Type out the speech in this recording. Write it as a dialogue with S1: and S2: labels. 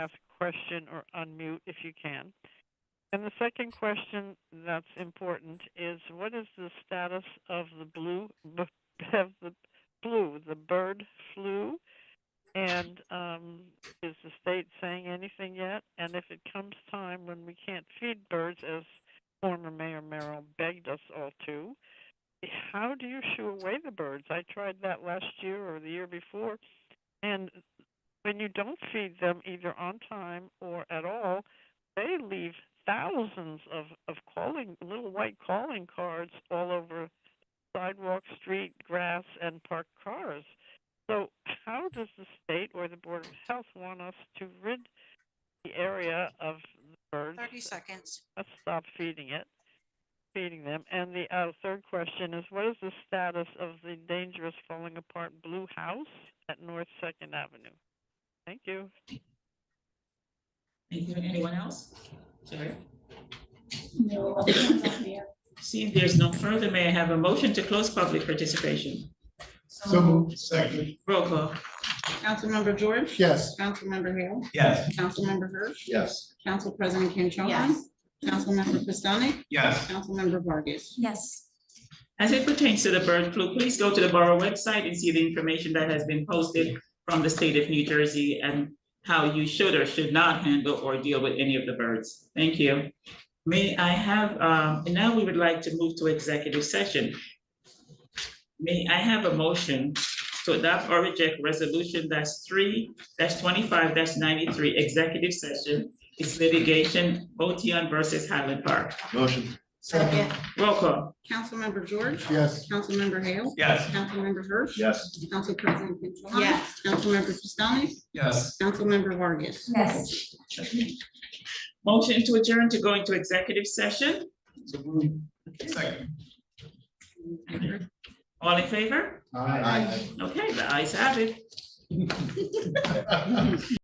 S1: ask a question or unmute if you can. And the second question that's important is what is the status of the blue, b- of the flu, the bird flu? And um, is the state saying anything yet? And if it comes time when we can't feed birds, as former Mayor Merrill begged us all to, how do you shoo away the birds? I tried that last year or the year before, and when you don't feed them either on time or at all, they leave thousands of of calling little white calling cards all over sidewalk, street, grass, and parked cars. So, how does the state or the board of health want us to rid the area of the birds?
S2: 30 seconds.
S1: let's stop feeding it, feeding them. And the uh, third question is, what is the status of the dangerous falling apart blue house at North Second Avenue? Thank you.
S3: Thank you. Anyone else? Sorry.
S4: No, other hands up there.
S3: Seeing there's no further, may I have a motion to close public participation?
S5: So moved. Second.
S3: Roll call.
S6: Councilmember George.
S5: Yes.
S6: Councilmember Hale.
S5: Yes.
S6: Councilmember Hirsch.
S5: Yes.
S6: Council President Kim Cho Han.
S2: Yes.
S6: Councilmember Pistonik.
S5: Yes.
S6: Councilmember Vargas.
S2: Yes.
S3: As it pertains to the bird flu, please go to the Borough website and see the information that has been posted from the state of New Jersey and how you should or should not handle or deal with any of the birds. Thank you. May I have, um, and now we would like to move to executive session. May I have a motion to adopt or reject resolution that's three, that's twenty-five, that's ninety-three, executive session. It's litigation, OTN versus Highland Park.
S5: Motion.
S2: Second.
S3: Roll call.
S6: Councilmember George.
S5: Yes.
S6: Councilmember Hale.
S5: Yes.
S6: Councilmember Hirsch.
S5: Yes.
S6: Council President Kim Cho Han.
S2: Yes.
S6: Councilmember Pistonik.
S5: Yes.
S6: Councilmember Vargas.
S2: Yes.
S3: Motion to adjourn to go into executive session.
S5: So moved. Second.
S3: All in favor?
S5: Aye.
S3: Okay, the ayes have it.
S5: Aye.